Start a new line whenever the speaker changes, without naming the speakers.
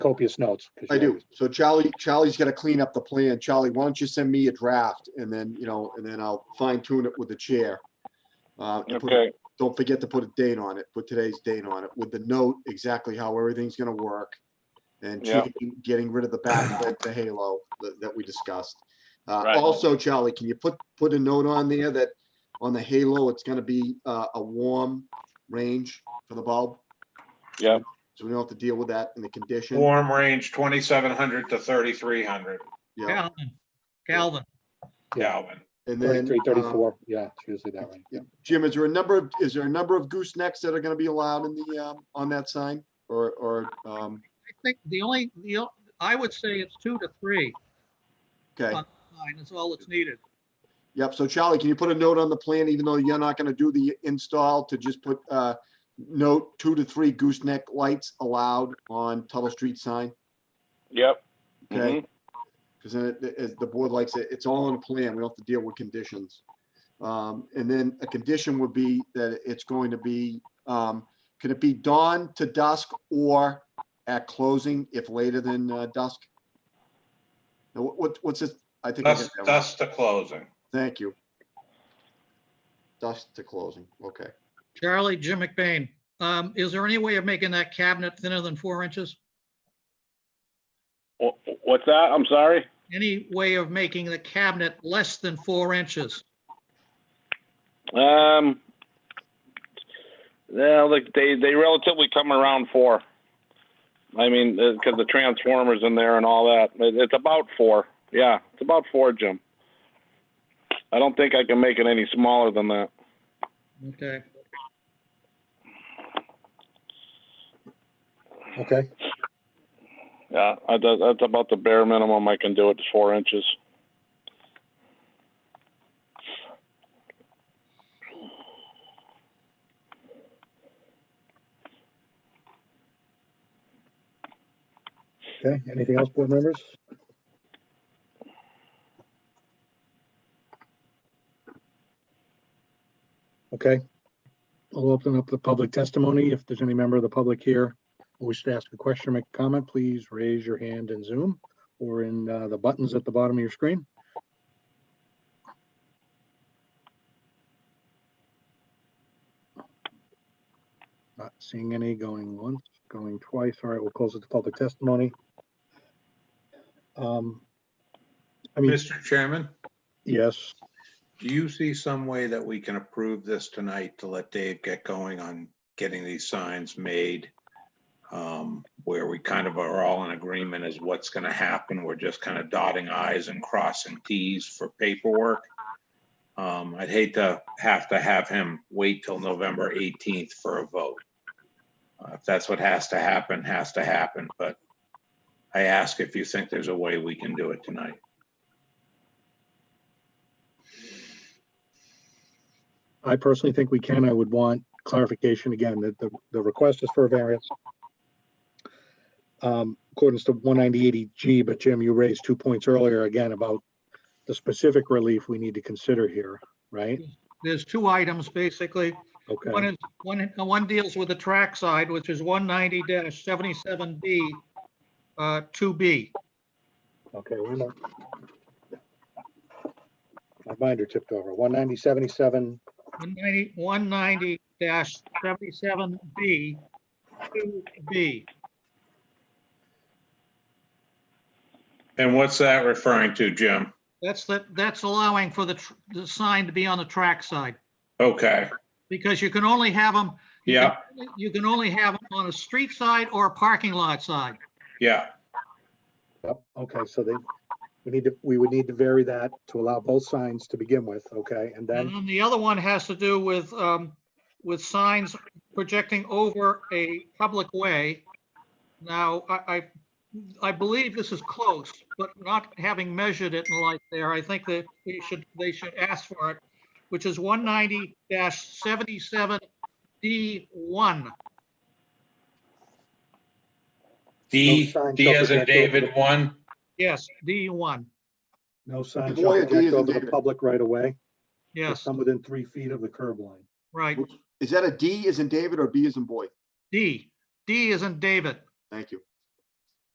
copious notes. 'cause
I
you
do.
always-
So Charlie, Charlie's gonna clean up the plan. Charlie, why don't you send me a draft and then, you know, and then I'll fine tune it with the chair. Uh, and put-
Okay,
Don't forget to put a date on it, put today's date on it with the note exactly how everything's gonna work. And
Yeah.
changing- getting rid of the backlit, the halo that, that we discussed. Uh,
Right.
also, Charlie, can you put, put a note on there that on the halo, it's gonna be, uh, a warm range for the bulb?
Yeah.
So we don't have to deal with that in the condition.
Warm range twenty-seven hundred to thirty-three hundred
Yeah,
Calvin, Calvin,
Kelvin.
and then.
33,
um,
34, yeah, it's usually that way. yeah.
Jim, is there a number of, is there a number of goosenecks that are gonna be allowed in the, um, on that sign or, or, um,
I think the only, the, o- I would say it's two to three,
okay.
Fine, is all that's needed.
Yep. So Charlie, can you put a note on the plan, even though you're not gonna do the install to just put, uh, note two to three gooseneck lights allowed on Tuttle Street sign?
yep.
Okay.
mhm.
Because then it, it- the board likes it, it's all on plan, we don't have to deal with conditions. Um, and then a condition would be that it's going to be, um, can it be dawn to dusk or at closing if later than uh, dusk? Now, what- what, what's this? I think, I
That's,
got that one.
that's the closing.
thank you. Dusk to closing, okay.
Charlie, Jim McBain, um, is there any way of making that cabinet thinner than four inches?
Wha- What's that? I'm sorry.
Any way of making the cabinet less than four inches?
Um, yeah, like they, they relatively come around four. I mean, because the transformers in there and all that, It- it's about four. Yeah, it's about four, Jim. I don't think I can make it any smaller than that.
Okay,
Okay,
Yeah, I, that- that's about the bare minimum I can do. It's four inches.
okay. Anything else, board members? Okay. I'll open up the public testimony. If there's any member of the public here who wishes to ask a question or make a comment, please raise your hand in Zoom or in uh, the buttons at the bottom of your screen. Not seeing any going once, going twice. All right, we'll close it to public testimony. Um, I mean,
Mr. Chairman,
yes,
do you see some way that we can approve this tonight to let Dave get going on getting these signs made? Um, Where we kind of are all in agreement as what's going to happen. We're just kind of dotting i's and crossing t's for paperwork. Um, I'd hate to have to have him wait till November 18th for a vote. Uh, If that's what has to happen, has to happen, but I ask if you think there's a way we can do it tonight.
I personally think we can. I would want clarification again, that the, the request is for a variance. Um, according to one ninety eighty G, but Jim, you raised two points earlier again about the specific relief we need to consider here, right?
there's two items, basically. One
Okay,
is, one, one deals with the track side, which is one ninety seventy-seven B, uh, two B.
okay. we're not- My binder tipped over. One ninety seventy-seven,
One ninety, one ninety seventy-seven B, two B.
And what's that referring to, Jim?
That's the, that's allowing for the, tr- the sign to be on the track side,
Okay,
because you can only have them,
yeah,
you can only have them on a street side or a parking lot side.
yeah,
Yep, okay, so they, we need to, we would need to vary that to allow both signs to begin with, okay? And
And
then,
then the other one has to do with, um, with signs projecting over a public way. Now, I, I, I believe this is close, but not having measured it in light there, I think that we should, they should ask for it, which is one ninety seventy-seven D one.
D,
No sign
D as in
shall project
David,
over.
one,
Yes, D one.
no sign shall
Boy, it
project
is
over the
indeed.
public right away.
Yes,
Some within three feet of the curb line.
right.
Is that a D as in David or B as in boy?
D. D is in David.
Thank you.